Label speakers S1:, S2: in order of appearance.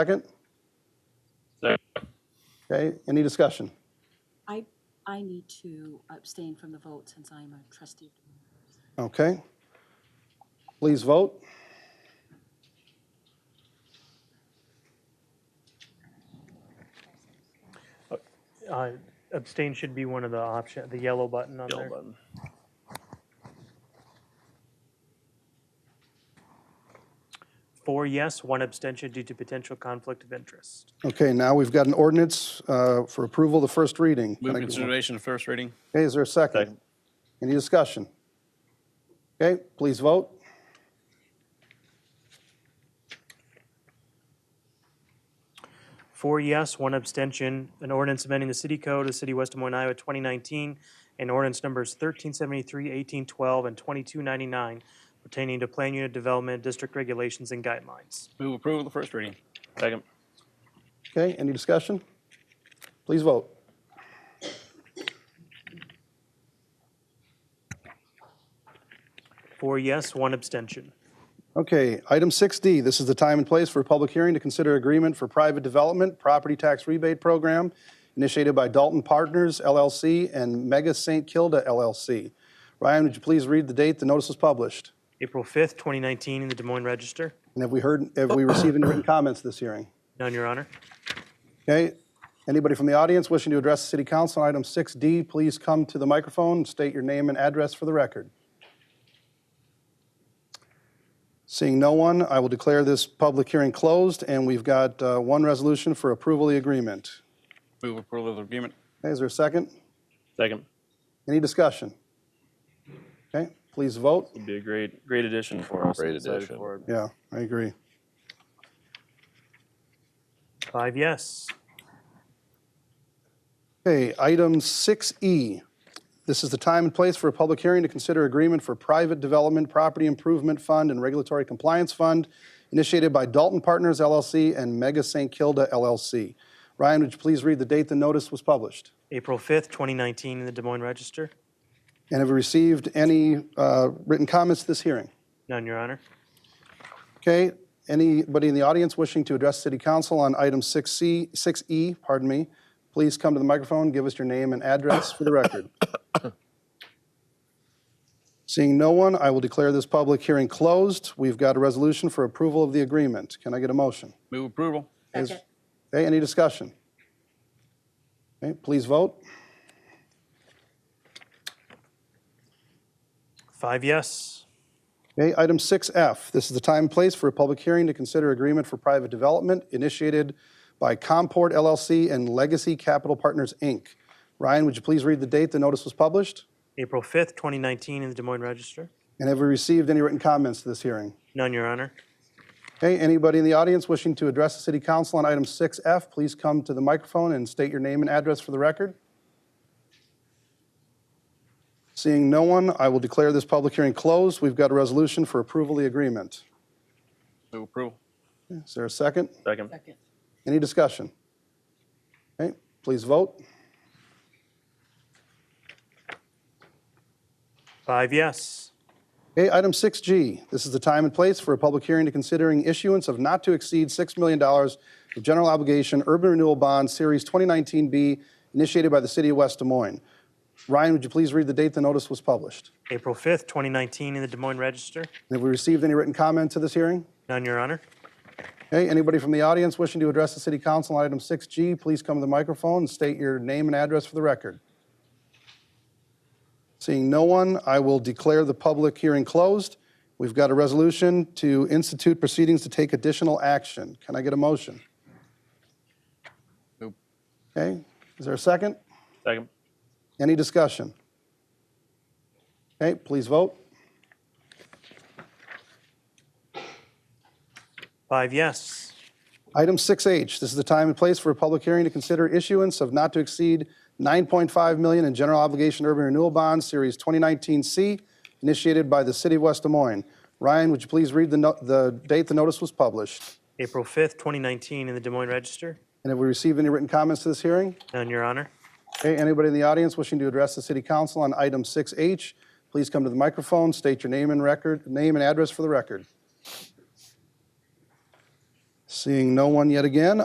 S1: Second?
S2: Second.
S1: Okay, any discussion?
S3: I, I need to abstain from the vote since I'm a trustee.
S1: Okay. Please vote.
S4: Uh, Abstain should be one of the option, the yellow button on there. Four yes, one abstention due to potential conflict of interest.
S1: Okay, now we've got an ordinance uh, for approval, the first reading. Can
S2: Move
S1: I get one?
S2: consideration of first reading.
S1: Okay, is there a second?
S2: Second.
S1: Any discussion? Okay, please vote.
S4: Four yes, one abstention, an ordinance amending the city code of the city of West Des Moines, Iowa, 2019, and ordinance numbers 1373, 1812, and 2299 pertaining to plan unit development, district regulations, and guidelines.
S2: Move approval of the first reading. Second.
S1: Okay, any discussion? Please vote.
S4: Four yes, one abstention.
S1: Okay, item 6D, this is the time and place for a public hearing to consider agreement for private development property tax rebate program initiated by Dalton Partners LLC and Mega St. Kilda LLC. Ryan, would you please read the date the notice was published?
S4: April 5th, 2019, in the Des Moines Register.
S1: And have we heard, have we received any written comments this hearing?
S4: None, Your Honor.
S1: Okay, anybody from the audience wishing to address the city council on item 6D, please come to the microphone and state your name and address for the record. Seeing no one, I will declare this public hearing closed, and we've got uh, one resolution for approval of the agreement.
S2: Move approval of the agreement.
S1: Okay, is there a second?
S2: Second.
S1: Any discussion? Okay, please vote.
S2: Would be a great, great addition for us.
S5: Great
S2: Excited
S5: addition.
S2: for it.
S1: Yeah, I agree.
S4: Five yes.
S1: Okay, item 6E. This is the time and place for a public hearing to consider agreement for private development, property improvement fund, and regulatory compliance fund initiated by Dalton Partners LLC and Mega St. Kilda LLC. Ryan, would you please read the date the notice was published?
S4: April 5th, 2019, in the Des Moines Register.
S1: And have we received any uh, written comments to this hearing?
S4: None, Your Honor.
S1: Okay, anybody in the audience wishing to address city council on item 6C, 6E, E, pardon me, please come to the microphone, give us your name and address for the record. Seeing no one, I will declare this public hearing closed. We've got a resolution for approval of the agreement. Can I get a motion?
S2: Move approval.
S1: Is- Okay, any discussion? Okay, please vote.
S4: Five yes.
S1: Okay, item 6F, this is the time and place for a public hearing to consider agreement for private development initiated by Comport LLC and Legacy Capital Partners, Inc. Ryan, would you please read the date the notice was published?
S4: April 5th, 2019, in the Des Moines Register.
S1: And have we received any written comments to this hearing?
S4: None, Your Honor.
S1: Okay, anybody in the audience wishing to address the city council on item 6F, please come to the microphone and state your name and address for the record. Seeing no one, I will declare this public hearing closed. We've got a resolution for approval of the agreement.
S2: Move approval.
S1: Is there a second?
S2: Second.
S3: Second.
S1: Any discussion? Okay, please vote.
S4: Five yes.
S1: Okay, item 6G, this is the time and place for a public hearing to considering issuance of not to exceed $6 million of general obligation urban renewal bond series 2019B initiated by the city of West Des Moines. Ryan, would you please read the date the notice was published?
S4: April 5th, 2019, in the Des Moines Register.
S1: And Have we received any written comment to this hearing?
S4: None, Your Honor.
S1: Okay, anybody from the audience wishing to address the city council on item 6G, please come to the microphone and state your name and address for the record. Seeing no one, I will declare the public hearing closed. We've got a resolution to institute proceedings to take additional action. Can I get a motion?
S2: Nope.
S1: Okay, is there a second?
S2: Second.
S1: Any discussion? Okay, please vote.
S4: Five yes.
S1: Item 6H, this is the time and place for a public hearing to consider issuance of not to exceed 9.5 million in general obligation urban renewal bonds, Series 2019C, initiated by the City of West Des Moines. Ryan, would you please read the no- the date the notice was published?
S4: April 5th, 2019, in the Des Moines Register.
S1: And have we received any written comments to this hearing?
S4: None, Your Honor.
S1: Okay, anybody in the audience wishing to address the City Council on item 6H, please come to the microphone, state your name and record, name and address for the record. Seeing no one yet again,